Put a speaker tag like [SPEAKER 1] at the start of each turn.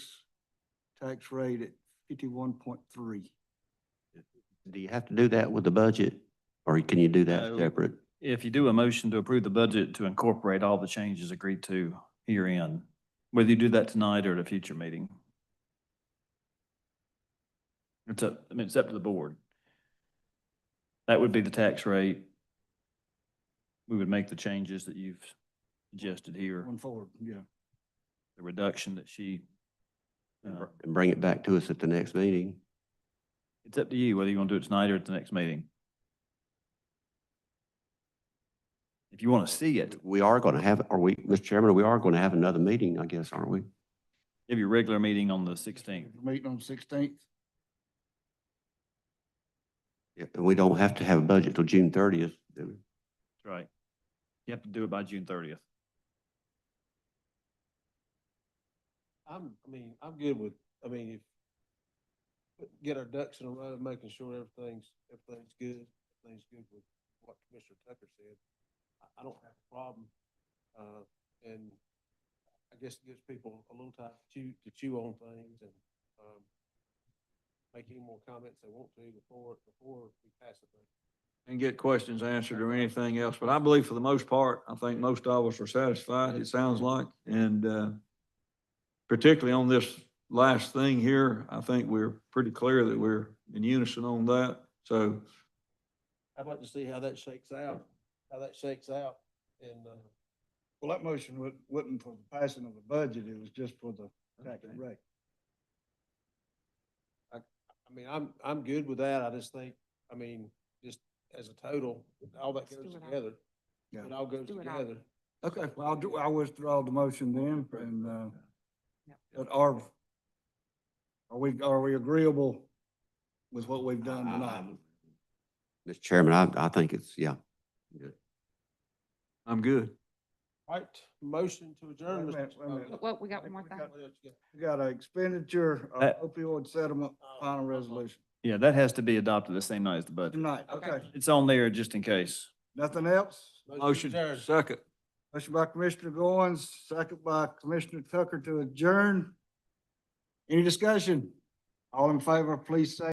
[SPEAKER 1] tax rate at fifty-one point three.
[SPEAKER 2] Do you have to do that with the budget, or can you do that
[SPEAKER 3] No.
[SPEAKER 2] separate?
[SPEAKER 3] If you do a motion to approve the budget to incorporate all the changes agreed to herein, whether you do that tonight or at a future meeting. It's up, I mean, it's up to the board. That would be the tax rate. We would make the changes that you've suggested here,
[SPEAKER 1] Going forward, yeah.
[SPEAKER 3] the reduction that she. uh,
[SPEAKER 2] And bring it back to us at the next meeting?
[SPEAKER 3] It's up to you whether you want to do it tonight or at the next meeting. If you want to see it,
[SPEAKER 2] We are going to have, are we, Mr. Chairman, we are going to have another meeting, I guess, aren't we?
[SPEAKER 3] have your regular meeting on the sixteenth.
[SPEAKER 1] Meeting on sixteenth,
[SPEAKER 2] Yeah, And we don't have to have a budget till June thirtieth.
[SPEAKER 3] Right. You have to do it by June thirtieth.
[SPEAKER 4] I'm, I mean, I'm good with, I mean, if, get our ducks in a row, making sure everything's, everything's good, everything's good with what Commissioner Tucker said. I, I don't have a problem, uh, and I guess it gives people a little time to chew, to chew on things and, um, make any more comments they want to before, before we pass the thing.
[SPEAKER 5] and get questions answered or anything else. But I believe for the most part, I think most of us are satisfied, it sounds like. And uh, particularly on this last thing here, I think we're pretty clear that we're in unison on that. So
[SPEAKER 4] I'd like to see how that shakes out, how that shakes out, and, uh,
[SPEAKER 1] well, that motion wa- wasn't for the passing of the budget, it was just for the tax rate.
[SPEAKER 4] I mean, I'm, I'm good with that. I just think, I mean, just as a total, all that goes
[SPEAKER 6] do it all.
[SPEAKER 4] together.
[SPEAKER 1] Yeah.
[SPEAKER 4] It all goes
[SPEAKER 6] do it all.
[SPEAKER 4] together.
[SPEAKER 1] Okay, well, I'll do, I withdraw the motion then, and, uh, but are, are we, are we agreeable with what we've done tonight?
[SPEAKER 2] Mr. Chairman, I, I think it's, yeah.
[SPEAKER 5] I'm good.
[SPEAKER 4] Right, motion to adjourn.
[SPEAKER 1] Wait a minute,
[SPEAKER 4] Mr.
[SPEAKER 1] wait a minute.
[SPEAKER 4] Chairman.
[SPEAKER 6] Well, we got one more
[SPEAKER 4] We
[SPEAKER 6] thing.
[SPEAKER 4] got- what else you
[SPEAKER 1] We
[SPEAKER 4] got?
[SPEAKER 1] got a expenditure of
[SPEAKER 5] Uh,
[SPEAKER 3] That-
[SPEAKER 1] opioid settlement,
[SPEAKER 4] Oh,
[SPEAKER 1] final resolution,
[SPEAKER 3] Yeah, that has to be adopted the same night as the budget.
[SPEAKER 1] tonight,
[SPEAKER 6] Okay.
[SPEAKER 1] okay,
[SPEAKER 3] It's on there just in case.
[SPEAKER 1] nothing else?
[SPEAKER 5] Motion,
[SPEAKER 4] to adjourn.
[SPEAKER 5] second.
[SPEAKER 1] Motion by Commissioner Goins, second by Commissioner Tucker to adjourn. Any discussion? All in favor, please say